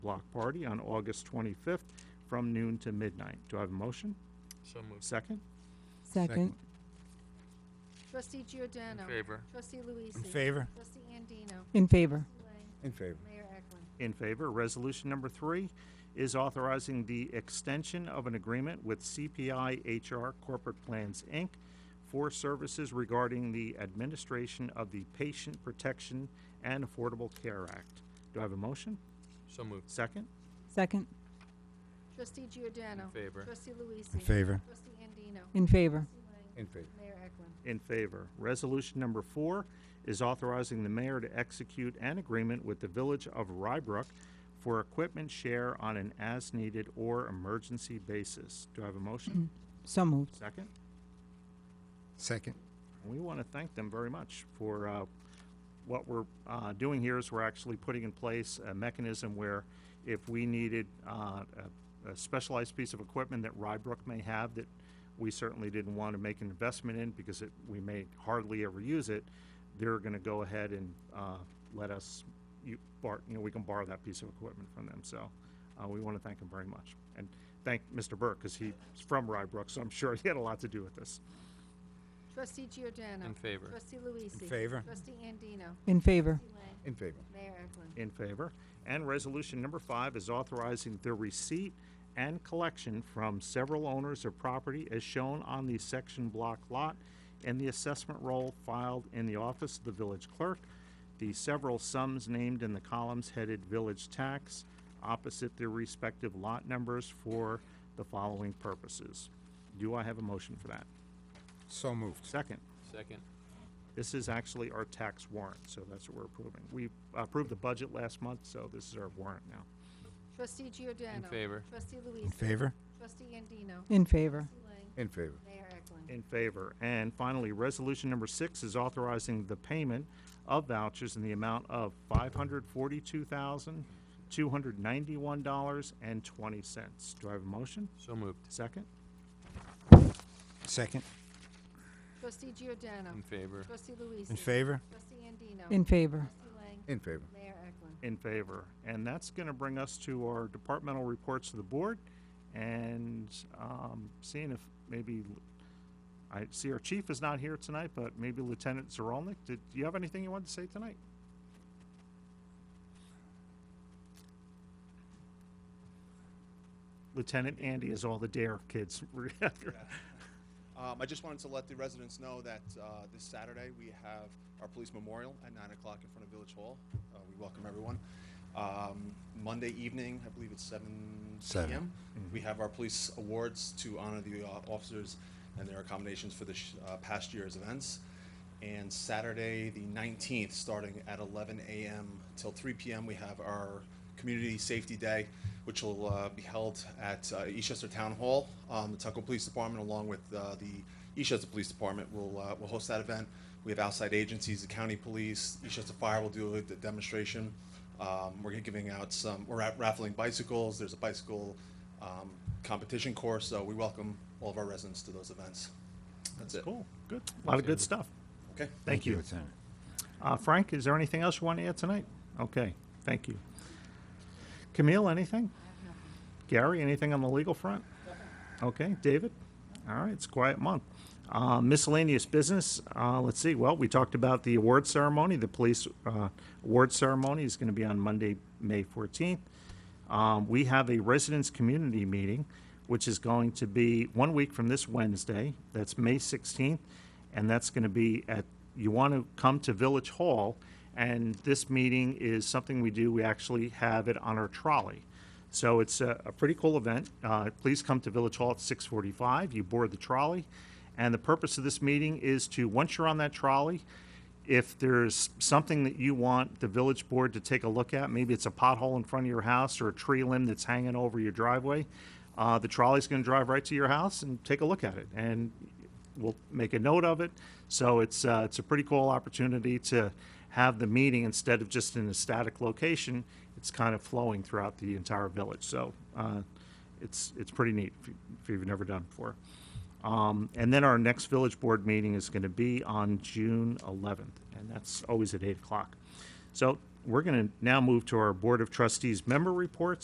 block party on August 25th from noon to midnight. Do I have a motion? So moved. Second? Second. Trustee Giordano. In favor. Trustee Luisi. In favor? Trustee Andino. In favor. Lang. In favor. Mayor Eklund. In favor. Resolution number three is authorizing the extension of an agreement with CPI HR Corporate Plans, Inc. for services regarding the administration of the Patient Protection and Affordable Care Act. Do I have a motion? So moved. Second? Second. Trustee Giordano. In favor. Trustee Luisi. In favor? Trustee Andino. In favor. Lang. In favor. Mayor Eklund. In favor. Resolution number four is authorizing the mayor to execute an agreement with the Village of Rybrook for equipment share on an as-needed or emergency basis. Do I have a motion? So moved. Second? Second. We want to thank them very much for uh, what we're uh, doing here is we're actually putting in place a mechanism where if we needed uh, a- a specialized piece of equipment that Rybrook may have that we certainly didn't want to make an investment in because it, we may hardly ever use it, they're going to go ahead and uh, let us, you, bar, you know, we can borrow that piece of equipment from them. So uh, we want to thank them very much. And thank Mr. Burke because he's from Rybrook, so I'm sure he had a lot to do with this. Trustee Giordano. In favor. Trustee Luisi. In favor. Trustee Andino. In favor. Trustee Lang. In favor. Mayor Eklund. In favor. And resolution number five is authorizing the receipt and collection from several owners of property as shown on the section block lot and the assessment roll filed in the office of the village clerk. The several sums named in the columns headed village tax opposite their respective lot numbers for the following purposes. Do I have a motion for that? So moved. Second. Second. This is actually our tax warrant, so that's what we're approving. We approved the budget last month, so this is our warrant now. Trustee Giordano. favor. Trustee Luisi. In favor? Trustee Andino. In favor. Trustee Lang. In favor. Mayor Eklund. In favor. And finally, resolution number six is authorizing the payment of vouchers in the amount of five hundred forty-two thousand, two hundred ninety-one dollars and twenty cents. Do I have a motion? So moved. Second? Second. Trustee Giordano. In favor. Trustee Luisi. In favor? Trustee Andino. In favor. Trustee Lang. In favor. Mayor Eklund. In favor. And that's going to bring us to our departmental reports to the board and um, seeing if maybe, I see our chief is not here tonight, but maybe Lieutenant Zerolnik, did do you have anything you wanted to say tonight? Lieutenant Andy is all the dare kids. Um, I just wanted to let the residents know that uh, this Saturday we have our police memorial at 9 o'clock in front of Village Hall. Uh, we welcome everyone. Um, Monday evening, I believe it's 7 Seven. p.m., we have our police awards to honor the uh, officers and their accommodations for the sh- uh, past year's events. And Saturday, the 19th, starting at 11 a.m. till 3 p.m., we have our Community Safety Day, which will uh, be held at uh, Eastchester Town Hall. Um, The Tuckahoe Police Department, along with uh, the Eastchester Police Department, will, uh, will host that event. We have outside agencies, the county police, Eastchester Fire will do a- the demonstration. Um, We're giving out some, we're ra- raffling bicycles, there's a bicycle um, competition course, so we welcome all of our residents to those events. That's it. Cool, good. A lot of good stuff. Okay? Thank you. Lieutenant. Uh, Frank, is there anything else you want to add tonight? Okay, thank you. Camille, anything? Gary, anything on the legal front? Okay, David? All right, it's a quiet month. Uh, miscellaneous business, uh, let's see, well, we talked about the award ceremony, the police, uh, award ceremony is gonna be on Monday, May fourteenth. Um, we have a residents' community meeting, which is going to be one week from this Wednesday. That's May 16th, and that's going to be at, you want to come to Village Hall, and this meeting is something we do, we actually have it on our trolley. So it's a, a pretty cool event. Uh, please come to Village Hall at 6:45. You board the trolley, and the purpose of this meeting is to, once you're on that trolley, if there's something that you want the village board to take a look at, maybe it's a pothole in front of your house or a tree limb that's hanging over your driveway, uh, the trolley's gonna drive right to your house and take a look at it, and we'll make a note of it. So it's, uh, it's a pretty cool opportunity to have the meeting instead of just in a static location, it's kind of flowing throughout the entire village, so, uh, it's, it's pretty neat if you- if you've never done it before. Um, and then our next village board meeting is going to be on June eleventh, and that's always at eight o'clock. So we're going to now move to our Board of Trustees member reports.